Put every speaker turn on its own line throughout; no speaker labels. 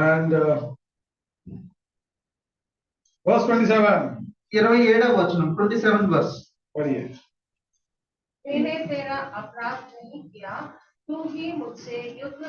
And uh, verse twenty-seven,
ఇరవై ఏడవ వచనం ట్వంటీ సెవెన్ వర్స్
पढ़िए
मैंने तेरा अपराध नहीं किया तू ही मुझसे युद्ध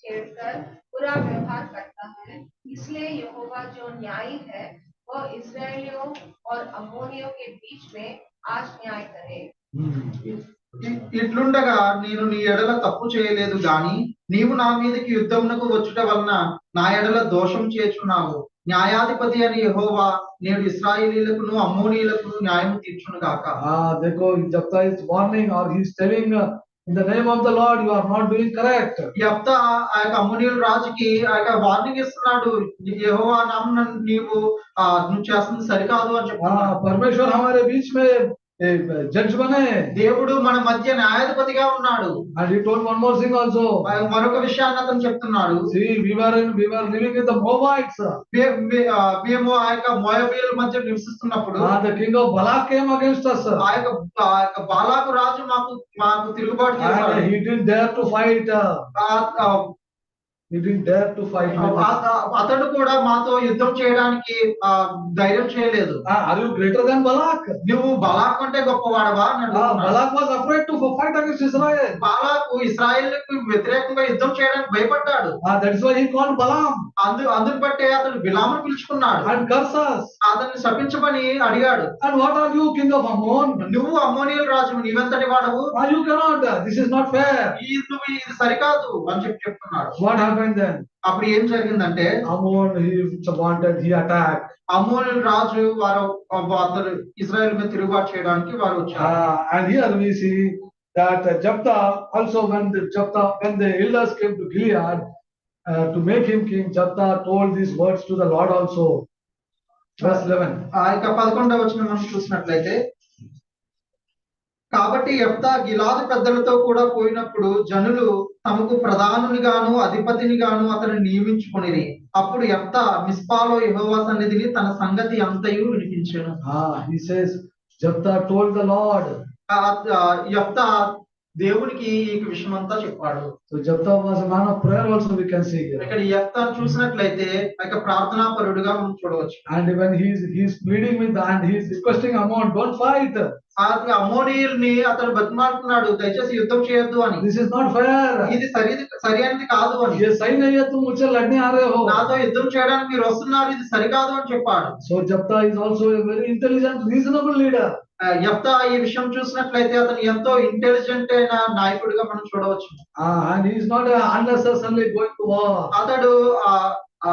छेड़कर बुरा व्यवहार करता है इसलिए यहोवा जो न्यायी है वह इसराइलियों और अमोनियों के बीच में आज न्याय करे
Hmm.
ఇ- ఇట్లుండగా నేను నీ ఎడల తప్పు చేయలేదు గాని నీవు నా మీదకి యుద్ధమునకు వచ్చుట వలన నా ఎడల దోషం చేర్చున్నావు న్యాయాధిపతి అని యెహోవా నేడు ఇస్రాయేలీలకును అమ్మోనీయులకును న్యాయం తీర్చును గాక
Ah, therefore, Japta is warning or he is telling, uh, in the name of the Lord, you are not doing correct.
యప్త ఆ యొక్క అమ్మోనీయుల రాజుకి ఆ యొక్క వార్నింగ్ ఇస్తున్నాడు యెహోవా నామన నీవు ఆ నువ్వు చేస్తుంది సరికాదు అని చెప్తున్నాడు
Ah, परमेश्वर हमारे बीच में eh, judge बने.
దేవుడు మన మధ్య న్యాయాధిపతిగా ఉన్నాడు
And he told one more thing also.
మరి మరొక విషయాన్ని అతను చెప్తున్నాడు
See, we were in, we were living with the Moabites.
మే- మే- ఆ, మేము ఆ యొక్క మోయబీల మధ్య నివసిస్తున్నప్పుడు
Ah, the king of Balak came against us.
ఆ యొక్క ఆ యొక్క బాలాకు రాజు మాకు మాకు తిరుగుబాటు చేశాడు
And he didn't dare to fight. uh,
uh- uh-
He didn't dare to fight. with us.
ఆ- ఆ- అతడు కూడా మాతో యుద్ధం చేయడానికి ఆ ధైర్యం చేయలేదు
Ah, Are you greater than Balak?
నువ్వు బలాక్ కంటే గొప్పవాడవా
Ah,
అని అడుగుతున్నాడు.
Balak was afraid to fight against Israel.
బాలాకు ఇస్రాయేల్కు వ్యతిరేకంగా యుద్ధం చేయడానికి భయపడ్డాడు
Ah, That is why he called Balaam
అందు అందుని బట్టే అతడు బిలామును పిలుచుకున్నాడు
and cursed us.
అతన్ని శపించమని అడిగాడు
And what are you, king of Ammon?
నువ్వు అమ్మోనియల్ రాజు నీవెంతటి వాడవు
Ah, You cannot, this is not fair.
ఈ- నువ్వు ఇది సరికాదు అని చెప్పి చెప్తున్నాడు
What happened then?
అప్పుడు ఏం జరిగిందంటే
Ammon, he wanted, he attacked.
అమోనుల రాజు వారు అతను ఇజ్రాయెల్ మీద తిరుగుబాటు చేయడానికి వారు వచ్చారు
Ah, And here we see that Japta, also when the Japta, when the elders came to Gilead uh, to make him king, Japta told these words to the Lord also. Verse eleven.
ఆ యొక్క పదకొండవ వచ్చిన మనం చూసినట్లయితే కాబట్టి ఎఫ్తా గిలాదు పెద్దలతో కూడా పోయినప్పుడు జనులు తమకు ప్రధానునిగాను అధిపతినిగాను అతను నియమించుకుని అప్పుడు ఎఫ్తా మిస్పాలో యెహోవా సన్నిధిని తన సంగతి అంతయు వినిపించాను
Ah, he says, Japta told the Lord.
ఎఫ్తా దేవునికి ఈ విషయం అంతా చెప్పాడు
So Japta was a man of prayer also we can see here.
ఇక్కడ ఎఫ్తా చూసినట్లయితే ఆ యొక్క ప్రార్థనా పరుడుగా మనం చూడవచ్చు
And when he is, he is pleading with and he is requesting Ammon, don't fight.
ఆ అమోనీయుల్ని అతను బతిమాలుతున్నాడు దయచేసి యుద్ధం చేయొద్దు అని
This is not fair.
ఇది సరి సరి అనేది కాదు అని
ये सही नहीं है तुम मुझसे लड़ने आ रहे हो.
నాతో యుద్ధం చేయడానికి మీరు వస్తున్నారు ఇది సరికాదు అని చెప్పాడు
So Japta is also a very intelligent, reasonable leader.
ఆ, యెఫ్తా ఈ విషయం చూసినట్లయితే అతను ఎంతో ఇంటెలిజెంట్ అయిన నాయకుడిగా మనం చూడవచ్చు
Ah, and he is not uh, unnecessarily going to war.
అతడు ఆ ఆ,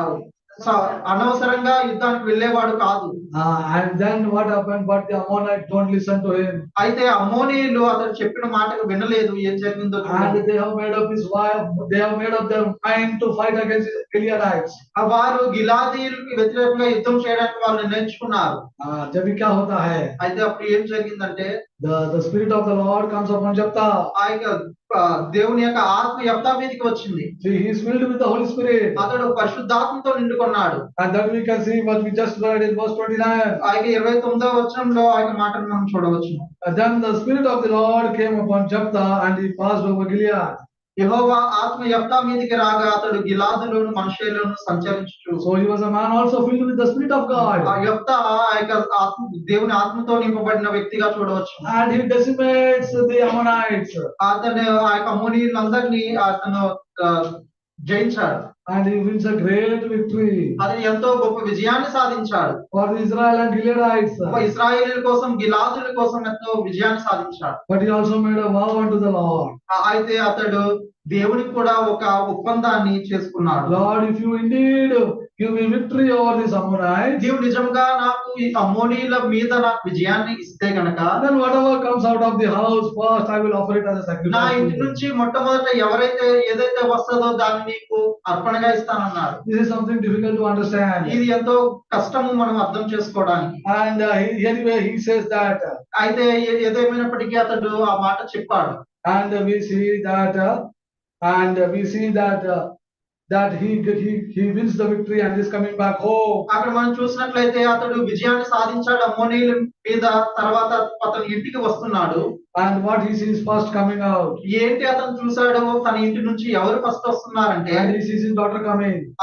స- అనవసరంగా యుద్ధానికి వెళ్ళేవాడు కాదు
Ah, and then what happened? But the Ammonite don't listen to him.
అయితే అమోనీయులు అతను చెప్పిన మాటకు వినలేదు ఏం జరిగిందో చూడండి.
And they have made up his wife, they have made up their mind to fight against Gileadites.
ఆ వారు గిలాదీయులకి వ్యతిరేకంగా యుద్ధం చేయడానికి వాళ్ళు నిర్ణయించుకున్నారు
Ah, तभी क्या होता है?
అయితే అప్పుడు ఏం జరిగిందంటే
The, the spirit of the Lord comes upon Japta.
ఆ యొక్క ఆ, దేవుని యొక్క ఆత్మ యెఫ్తా మీదకి వచ్చింది
See, he is filled with the Holy Spirit.
అతడు పరిశుద్ధాత్మతో నిండుకున్నాడు
And then we can see what we just read in verse twenty-nine.
ఆయన ఇరవై తొమ్మిదవ వచనంలో ఆయన మాటను మనం చూడవచ్చు
And Then the spirit of the Lord came upon Japta and he passed over Gilead.
యెహోవా ఆత్మ యెఫ్తా మీదకి రాగా అతడు గిలాదులోను మనుషులను సంచరించు
So he was a man also filled with the spirit of
ఆ
God.
యొక్క ఆ యొక్క ఆత్మ దేవుని ఆత్మతో నింపబడిన వ్యక్తిగా చూడవచ్చు
And he decimates the Ammonites.
అతను ఆ యొక్క అమోనీయులందరినీ అతను ఆ, జయించాడు
And he wins a great victory
అతను ఎంతో గొప్ప విజయాన్ని సాధించాడు
for the Israel and Gileadites.
గొప్ప ఇస్రాయేలీల కోసం గిలాదుల కోసం ఎంతో విజయాన్ని సాధించాడు
But he also made a vow unto the Lord.
ఆ, అయితే అతడు దేవునికి కూడా ఒక ఒప్పందాన్ని చేసుకున్నాడు
Lord, if you indeed give me victory over these Ammonites,
నీవు నిజంగా నాకు ఈ అమోనీల మీద నాకు విజయాన్ని ఇస్తే గనక
then whatever comes out of the house first, I will offer it as a
నా
sacrifice.
ఇంటి
to you.
నుంచి మొట్టమొదట ఎవరైతే ఏదైతే వస్తుందో దాన్ని నీకు అర్పణగా ఇస్తానన్నాడు
This is something difficult to understand.
ఇది ఎంతో కష్టము మనం అర్థం చేసుకోవడానికి
And uh, he- anyway, he says that, uh,
అయితే ఏ- ఏదేమైనప్పటికీ అతడు ఆ మాట చెప్పాడు
and uh, we see that, uh, and uh, we see that, uh, that he, he, he wins the victory and is coming back home.
అక్కడ మనం చూసినట్లయితే అతడు విజయాన్ని సాధించాడు అమ్మోనీల మీద తర్వాత అతను ఇంటికి వస్తున్నాడు
And what he sees first coming out,
ఏంటి అతను చూశాడు తన ఇంటి నుంచి ఎవరు ఫస్ట్ వస్తున్నారంటే
and he sees his daughter coming.